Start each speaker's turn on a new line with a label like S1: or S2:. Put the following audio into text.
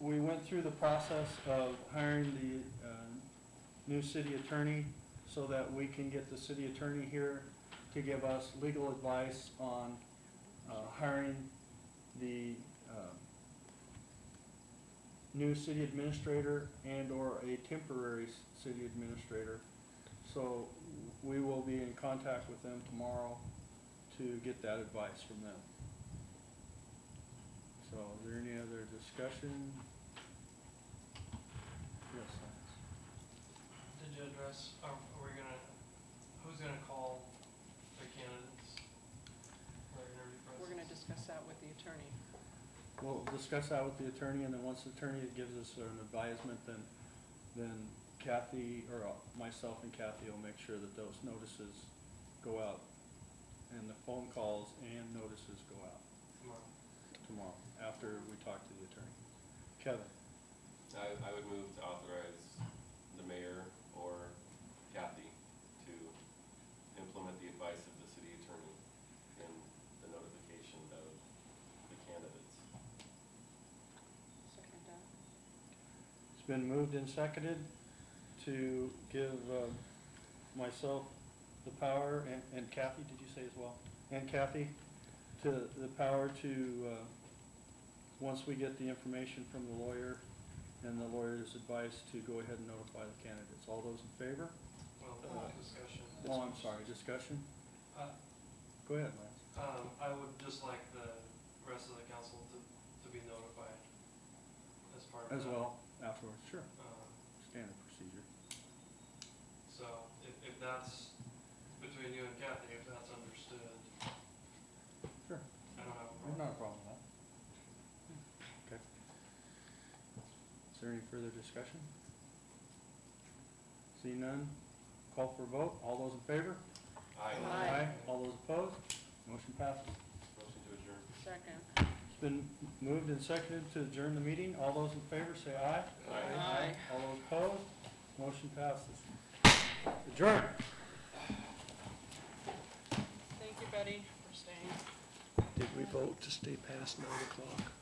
S1: went through the process of hiring the uh, new city attorney so that we can get the city attorney here to give us legal advice on uh, hiring the um, new city administrator and/or a temporary s- city administrator. So we will be in contact with them tomorrow to get that advice from them. So is there any other discussion? Yes, Lance.
S2: Did you address, are, are we gonna, who's gonna call the candidates? for interview
S3: We're gonna
S2: process?
S3: discuss that with the attorney.
S1: We'll discuss that with the attorney, and then once the attorney gives us an advisement, then, then Kathy, or uh, myself and Kathy will make sure that those notices go out, and the phone calls and notices go out
S2: Tomorrow.
S1: tomorrow, after we talk to the attorney. Kevin?
S4: I, I would move to authorize the mayor or Kathy to implement the advice of the city attorney in the notification of the candidates.
S3: Second that.
S1: It's been moved and seconded to give um, myself the power, and- and Kathy, did you say as well? And Kathy, to, the power to, uh, once we get the information from the lawyer and the lawyer's advice, to go ahead and notify the candidates. All those in favor?
S2: Well,
S1: Uh,
S2: discussion.
S1: Oh, I'm sorry, discussion?
S2: Uh,
S1: Go ahead, Lance.
S2: Um, I would just like the rest of the council to, to be notified as part of that.
S1: As well, afterwards, sure,
S2: Um,
S1: standard procedure.
S2: So if, if that's between you and Kathy, if that's understood,
S1: Sure,
S2: I don't have a
S1: there's
S2: problem.
S1: not a problem with that. Okay. Is there any further discussion? See none, call for a vote, all those in favor?
S3: Aye.
S1: All those opposed? Motion passes.
S4: Motion to adjourn.
S3: Second.
S1: It's been moved and seconded to adjourn the meeting. All those in favor say aye.
S3: Aye. Aye.
S1: All those opposed? Motion passes. Adjourn.
S3: Thank you, Betty, for staying.
S5: Did we vote to stay past nine o'clock?